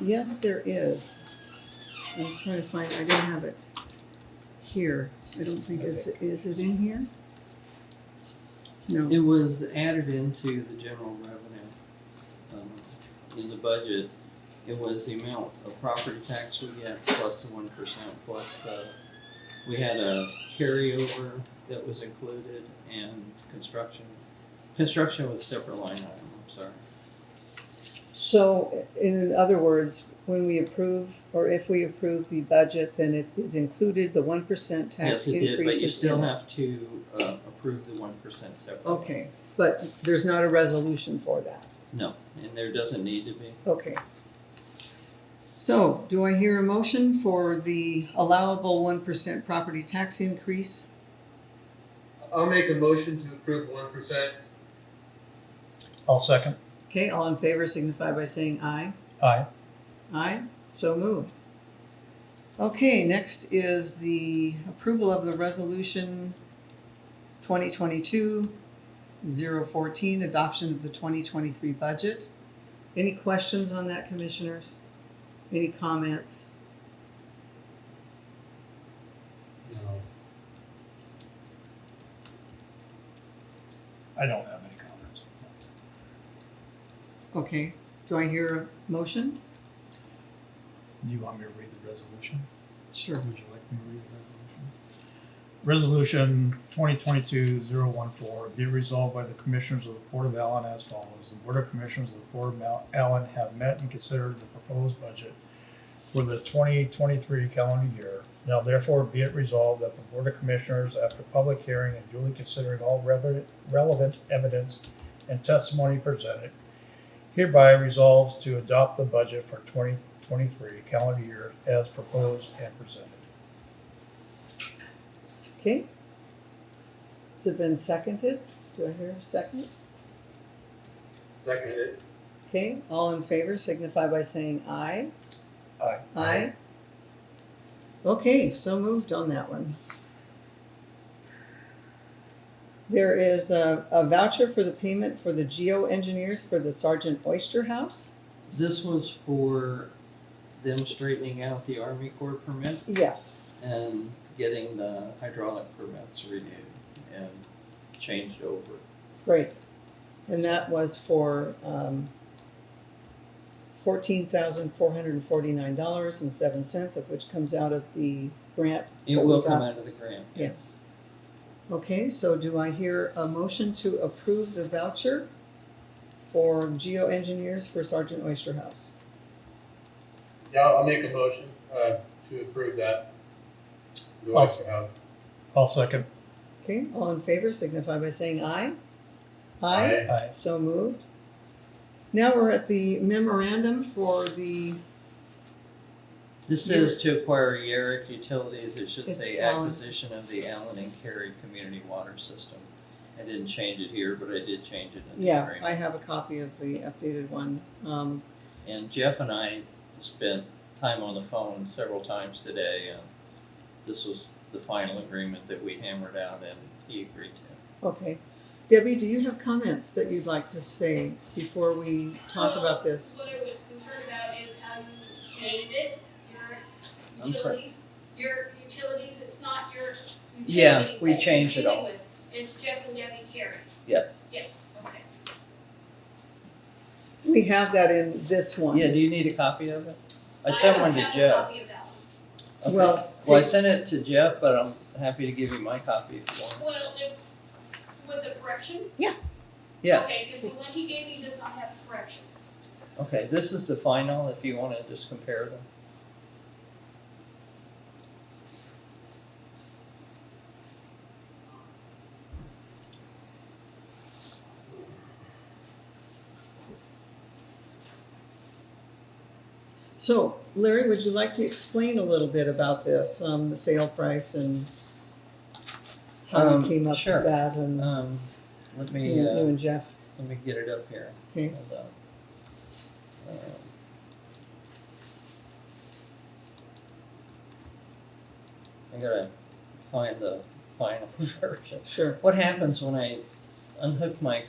Yes, there is. I'm trying to find, I didn't have it here. I don't think, is, is it in here? No. It was added into the general revenue, um, in the budget. It was the amount of property tax we get plus the one percent plus the, we had a carryover that was included and construction. Construction was separate line item, I'm sorry. So, in other words, when we approve, or if we approve the budget, then it is included, the one percent tax Yes, it increase. did, but you is still in it. have to, uh, approve the one percent separate. Okay, but there's not a resolution for that. No, and there doesn't need to be. Okay. So, do I hear a motion for the allowable one percent property tax increase? I'll make a motion to approve one percent. I'll second. Okay, all in favor signify by saying aye. Aye. Aye, so moved. Okay, next is the approval of the resolution 2022-014, adoption of the 2023 budget. Any questions on that, commissioners? Any comments? No. I don't have any comments. Okay, do I hear a motion? Do you want me to read the resolution? Sure. Would you like me to read the resolution? Resolution 2022-014, be resolved by the Commissioners of the Port of Allen as follows. The Board of Commissioners of the Port of Mal- Allen have met and considered the proposed budget for the 2023 calendar year. Now therefore be it resolved that the Board of Commissioners, after public hearing and duly considering all rever- relevant evidence and testimony presented, hereby resolves to adopt the budget for 2023 calendar year as proposed and presented. Okay. Has it been seconded? Do I hear a second? Seconded. Okay, all in favor signify by saying aye. Aye. Aye. Okay, so moved on that one. There is a, a voucher for the payment for the geo engineers for the Sergeant Oyster House? This was for them straightening out the Army Corps permit Yes. and getting the hydraulic permits renewed and changed over. Great. And that was for, um, fourteen thousand four hundred and forty-nine dollars and seven cents, of which comes out of the grant. It that we will got. come out of the grant, Yeah. yes. Okay, so do I hear a motion to approve the voucher for Geo Engineers for Sergeant Oysterhouse? Yeah, I'll make a motion, uh, to approve that. The I'll- Oyster House. I'll second. Okay, all in favor signify by saying aye. Aye, Aye. so moved. Now we're at the memorandum for the, This says to acquire Yerrick Utilities, it should It's say Allen. acquisition of the Allen and Cary Community Water System. I didn't change it here, but I did change it in the yeah, I grant. have a copy of the updated one. Um, And Jeff and I spent time on the phone several times today, and this was the final agreement that we hammered out and he agreed to. Okay. Debbie, do you have comments that you'd like to say before we talk about this? What I was concerned about is how you named it, your I'm sorry. utilities, your utilities, it's not your utilities. Yeah, we that you're changed it dealing all. with. It's Jeff and Debbie Carey, Yes. yes, okay. We have that in this one. Yeah, do you need a copy of it? I sent one to don't have a Jeff. copy of that. Okay. Well, Well, I sent it to Jeff, but I'm happy to give you my copy if you want. Well, if, with the correction? Yeah. Yeah. Okay, because the one he gave me does not have correction. Okay, this is the final, if you wanna just compare them. So Larry, would you like to explain a little bit about this, um, the sale price and how Um, we came up sure. with that and uh, Um, let you me, you uh, and Jeff? let me get it up here. Okay. Hold on. Um, I gotta find the final version. Sure. What happens when I unhook my